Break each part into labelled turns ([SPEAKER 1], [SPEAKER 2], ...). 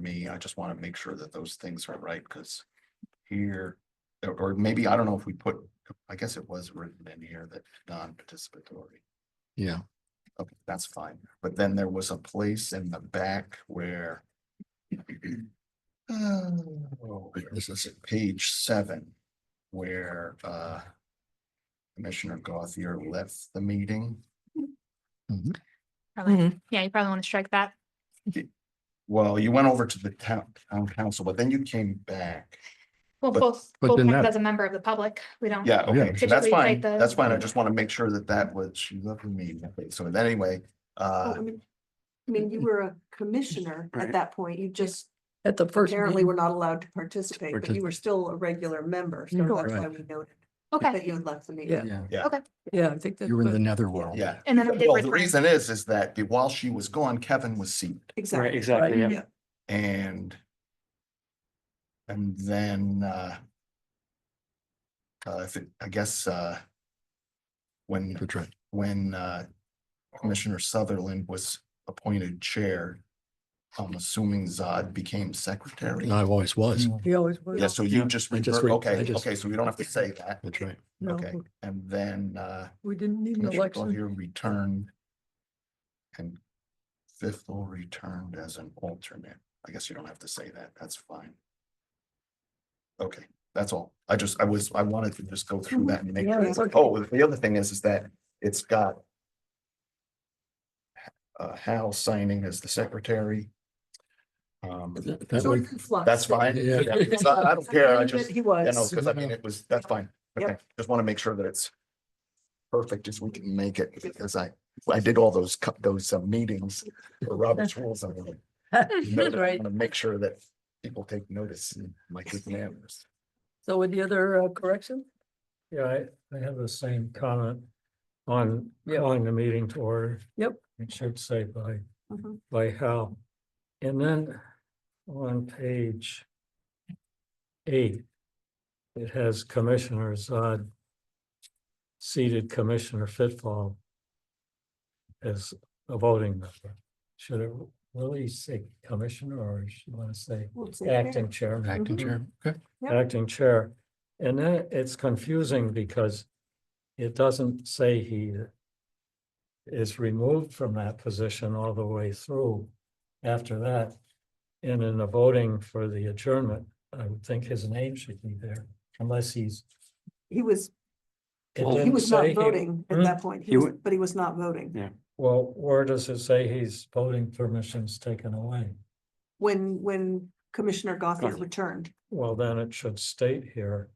[SPEAKER 1] me. I just want to make sure that those things are right because here, or- or maybe, I don't know if we put, I guess it was written in here that non-participatory.
[SPEAKER 2] Yeah,
[SPEAKER 1] Okay, that's fine. But then there was a place in the back where oh, where is this at? page seven, where uh Commissioner Gothier left the meeting.
[SPEAKER 3] Probably, yeah, you probably want to strike that.
[SPEAKER 1] Well, you went over to the town, town council, but then you came back.
[SPEAKER 3] Well,
[SPEAKER 1] But-
[SPEAKER 3] both,
[SPEAKER 2] but
[SPEAKER 3] both
[SPEAKER 2] then that-
[SPEAKER 3] as a member of the public, we don't.
[SPEAKER 1] Yeah, okay,
[SPEAKER 2] Yeah.
[SPEAKER 1] so that's
[SPEAKER 3] Typically, like
[SPEAKER 1] fine.
[SPEAKER 3] the-
[SPEAKER 1] That's fine. I just want to make sure that that was, she left the meeting. Okay, So then anyway,
[SPEAKER 4] Well,
[SPEAKER 1] uh,
[SPEAKER 4] Oh, I mean, I mean, you were a commissioner at
[SPEAKER 5] Right.
[SPEAKER 4] that point. You just
[SPEAKER 6] At the first.
[SPEAKER 4] apparently
[SPEAKER 6] meeting.
[SPEAKER 4] were not allowed to participate, but you were still a regular member. So
[SPEAKER 6] Sure.
[SPEAKER 4] that's why
[SPEAKER 2] Right.
[SPEAKER 4] we noted
[SPEAKER 3] Okay,
[SPEAKER 4] that you had left the meeting.
[SPEAKER 6] Mm-hmm. Yeah.
[SPEAKER 2] yeah.
[SPEAKER 6] Yeah, I think that's.
[SPEAKER 2] You were in
[SPEAKER 6] what-
[SPEAKER 2] the netherworld.
[SPEAKER 1] yeah.
[SPEAKER 3] and
[SPEAKER 2] Oh,
[SPEAKER 3] then we did.
[SPEAKER 1] Well, the
[SPEAKER 3] refer-
[SPEAKER 1] reason is, is that the- while she was gone, Kevin was seated.
[SPEAKER 5] Right,
[SPEAKER 4] Exactly.
[SPEAKER 5] exactly, yeah.
[SPEAKER 4] Yeah.
[SPEAKER 1] And and then uh uh, if it, I guess, uh when,
[SPEAKER 2] That's right.
[SPEAKER 1] when uh Commissioner Sutherland was appointed chair, I'm assuming Zod became secretary.
[SPEAKER 2] No, I always was.
[SPEAKER 6] He always was.
[SPEAKER 1] Yeah, so you
[SPEAKER 5] Yeah.
[SPEAKER 1] just,
[SPEAKER 2] Uh, I just
[SPEAKER 1] refer-
[SPEAKER 2] re- I
[SPEAKER 1] okay,
[SPEAKER 2] just-
[SPEAKER 1] okay, so we don't have to say that.
[SPEAKER 2] That's right.
[SPEAKER 6] No,
[SPEAKER 1] okay. And then uh
[SPEAKER 6] We didn't need an
[SPEAKER 1] Commissioner
[SPEAKER 6] election.
[SPEAKER 1] Goodyear returned. And Fifthel returned as an alternate. I guess you don't have to say that. That's fine. Okay, that's all. I just, I was, I wanted to just go through that and make.
[SPEAKER 6] Yeah,
[SPEAKER 1] sure.
[SPEAKER 6] it's okay.
[SPEAKER 1] Oh, the other thing is, is that it's got uh, Hal signing as the secretary. Um,
[SPEAKER 2] That-
[SPEAKER 4] It's
[SPEAKER 2] that
[SPEAKER 4] all
[SPEAKER 2] way-
[SPEAKER 4] in flux.
[SPEAKER 1] that's fine.
[SPEAKER 2] Yeah.
[SPEAKER 1] Yeah, it's not- I don't care. I just.
[SPEAKER 6] He
[SPEAKER 1] Yeah, no,
[SPEAKER 6] was.
[SPEAKER 1] because I mean, it was, that's fine. Okay, just want to make sure that it's perfect as we can make it, because I, I did all those, cu- those uh, meetings for Robert's rules. I'm like, you know, I
[SPEAKER 6] Right.
[SPEAKER 1] want to make sure that people take notice and my good manners.
[SPEAKER 6] So with the other uh, correction?
[SPEAKER 7] Yeah, I, I have the same comment on calling the meeting to order.
[SPEAKER 6] Yep.
[SPEAKER 7] It should say by,
[SPEAKER 4] Mhm.
[SPEAKER 7] by how. And then on page eight, it has commissioners, uh, seated Commissioner Fitfall as a voting member. Should it really say commissioner or should want to say
[SPEAKER 4] Well, it's okay.
[SPEAKER 7] acting chairman?
[SPEAKER 6] Mm-hmm.
[SPEAKER 2] Acting
[SPEAKER 4] Mhm.
[SPEAKER 2] chair. Okay.
[SPEAKER 4] Yep.
[SPEAKER 7] acting chair. And then it's confusing because it doesn't say he is removed from that position all the way through after that. And in the voting for the adjournment, I would think his name should be there unless he's.
[SPEAKER 4] He was,
[SPEAKER 7] it
[SPEAKER 5] Well,
[SPEAKER 4] he
[SPEAKER 7] didn't
[SPEAKER 4] was
[SPEAKER 7] say
[SPEAKER 4] not
[SPEAKER 7] he-
[SPEAKER 4] voting at
[SPEAKER 7] Hmm?
[SPEAKER 4] that point. He
[SPEAKER 5] He
[SPEAKER 4] was,
[SPEAKER 5] wa-
[SPEAKER 4] but he was not voting.
[SPEAKER 7] Well, where does it say he's voting permissions taken away?
[SPEAKER 4] When, when Commissioner Gothier
[SPEAKER 5] Gothier.
[SPEAKER 4] returned,
[SPEAKER 7] Well, then it should state here,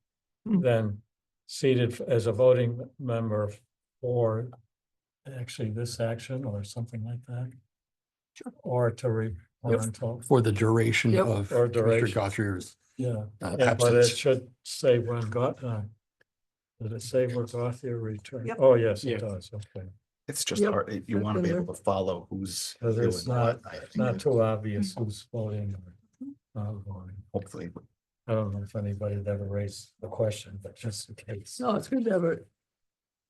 [SPEAKER 6] Mm.
[SPEAKER 7] then seated as a voting member for actually this action or something like that. Or to re, or
[SPEAKER 2] Yep.
[SPEAKER 7] until,
[SPEAKER 2] For the duration
[SPEAKER 6] Yep.
[SPEAKER 2] of Commissioner
[SPEAKER 7] Or duration.
[SPEAKER 2] Gothrier's
[SPEAKER 7] yeah,
[SPEAKER 2] uh,
[SPEAKER 7] Yeah, but it
[SPEAKER 2] absence.
[SPEAKER 7] should say when got, uh, did it say when Gothier returned?
[SPEAKER 4] Yep.
[SPEAKER 7] Oh, yes,
[SPEAKER 5] Yeah.
[SPEAKER 7] it does, okay,
[SPEAKER 1] It's just
[SPEAKER 6] Yep,
[SPEAKER 1] hard, it- you
[SPEAKER 6] that's
[SPEAKER 1] want to
[SPEAKER 6] in
[SPEAKER 1] be
[SPEAKER 6] there.
[SPEAKER 1] able to follow who's.
[SPEAKER 7] Because
[SPEAKER 1] doing
[SPEAKER 7] it's not-
[SPEAKER 1] what, I think
[SPEAKER 7] not
[SPEAKER 1] it-
[SPEAKER 7] too obvious who's voting or not voting.
[SPEAKER 1] Hopefully,
[SPEAKER 7] I don't know if anybody had ever raised the question, but just in case,
[SPEAKER 6] No, it's good to have it.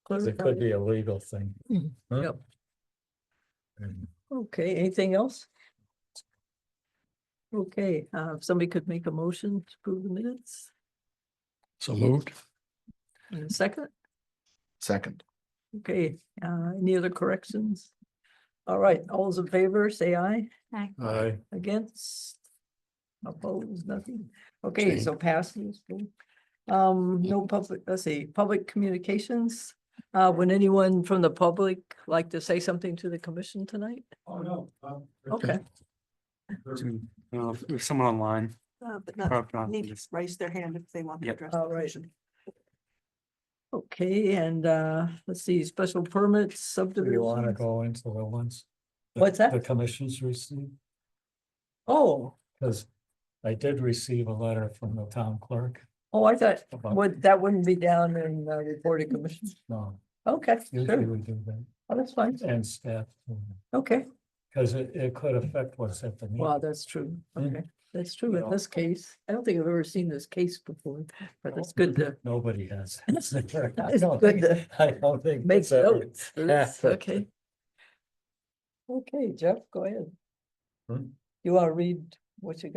[SPEAKER 7] 'Cause it could
[SPEAKER 6] clarified.
[SPEAKER 7] be a legal thing.
[SPEAKER 6] Mm,
[SPEAKER 7] Huh?
[SPEAKER 6] yep.
[SPEAKER 7] And-
[SPEAKER 6] Okay, anything else? Okay, uh, if somebody could make a motion to approve the minutes
[SPEAKER 2] So moved.
[SPEAKER 6] in a second.
[SPEAKER 1] second.
[SPEAKER 6] Okay, uh, any other corrections? All right, all those in favor, say aye.
[SPEAKER 7] Aye.
[SPEAKER 6] Against? Opposed, nothing. Okay,
[SPEAKER 2] Abstain.
[SPEAKER 6] so passes. boom. Um, no public, let's see, public communications. Uh, would anyone from the public like to say something to the commission tonight?
[SPEAKER 7] Oh, no.
[SPEAKER 6] Okay,
[SPEAKER 5] Do- I don't know if- There's someone online.
[SPEAKER 4] uh, but not,
[SPEAKER 5] probably not,
[SPEAKER 4] need to
[SPEAKER 5] just-
[SPEAKER 4] raise their hand if they want to
[SPEAKER 5] Yep.
[SPEAKER 4] address. the
[SPEAKER 6] all right.
[SPEAKER 4] commission.
[SPEAKER 6] Okay, and uh, let's see, special permits,
[SPEAKER 7] Do you want to
[SPEAKER 6] subdivision.
[SPEAKER 7] go into the ones?
[SPEAKER 6] What's that?
[SPEAKER 7] The commissions received,
[SPEAKER 6] Oh,
[SPEAKER 7] because I did receive a letter from the town clerk.
[SPEAKER 6] oh, I thought,
[SPEAKER 7] about-
[SPEAKER 6] would, that wouldn't be down in uh, reported commission.
[SPEAKER 7] No,
[SPEAKER 6] Okay,
[SPEAKER 7] usually
[SPEAKER 6] sure,
[SPEAKER 7] we do that,
[SPEAKER 6] Oh, that's fine.
[SPEAKER 7] and staff,
[SPEAKER 6] Okay,
[SPEAKER 7] because it, it could affect what's at the
[SPEAKER 6] wow,
[SPEAKER 7] meeting.
[SPEAKER 6] that's true.
[SPEAKER 7] Mm.
[SPEAKER 6] Okay, that's true in
[SPEAKER 7] Yeah.
[SPEAKER 6] this case. I don't think I've ever seen this case before, but it's good to
[SPEAKER 7] Nobody has.
[SPEAKER 6] It's
[SPEAKER 7] I
[SPEAKER 6] good
[SPEAKER 7] don't think-
[SPEAKER 6] to
[SPEAKER 7] I don't think.
[SPEAKER 6] make
[SPEAKER 7] it's ever-
[SPEAKER 6] notes. Yes, Okay. Okay, Jeff, go ahead.
[SPEAKER 7] Hmm?
[SPEAKER 6] You want to read what you got?